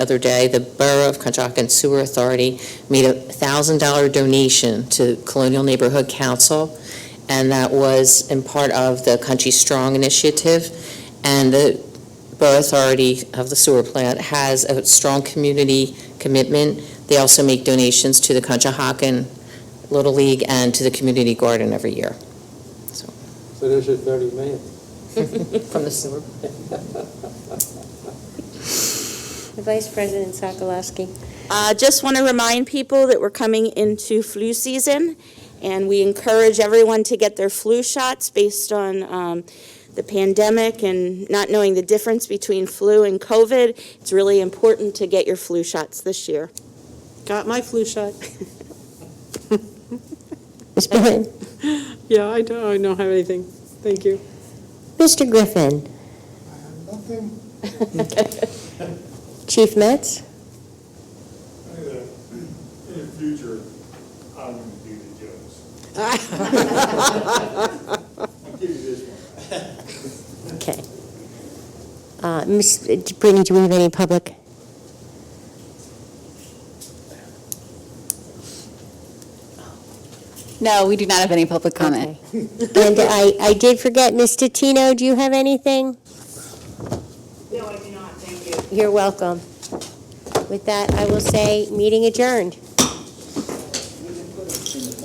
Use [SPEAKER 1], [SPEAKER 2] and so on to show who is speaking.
[SPEAKER 1] other day, the Borough of Conshohocken Sewer Authority made a thousand-dollar donation to Colonial Neighborhood Council, and that was in part of the Country Strong Initiative. And the Borough Authority of the sewer plant has a strong community commitment. They also make donations to the Conshohocken Little League and to the community garden every year
[SPEAKER 2] So there's your 30 million.
[SPEAKER 1] from the sewer.
[SPEAKER 3] Vice President Sokolowski.
[SPEAKER 4] Uh, Just want to remind people that we're coming into flu season, and we encourage everyone to get their flu shots based on um, the pandemic and not knowing the difference between flu and COVID. It's really important to get your flu shots this year.
[SPEAKER 5] Got my flu shot.
[SPEAKER 3] Ms. Byrne.
[SPEAKER 5] Yeah, I don't, I don't have anything. Thank you.
[SPEAKER 3] Mr. Griffin.
[SPEAKER 6] Nothing,
[SPEAKER 3] Chief Metz.
[SPEAKER 6] in the future, I'm gonna do the jokes. I'll give you this one.
[SPEAKER 3] Okay. Uh, Ms. Brittany, do we have any public?
[SPEAKER 7] No, we do not have any public comment.
[SPEAKER 3] Okay. And I, I did forget, Ms. Tatino, do you have anything?
[SPEAKER 4] No, I do not. Thank you.
[SPEAKER 3] You're welcome. With that, I will say, meeting adjourned.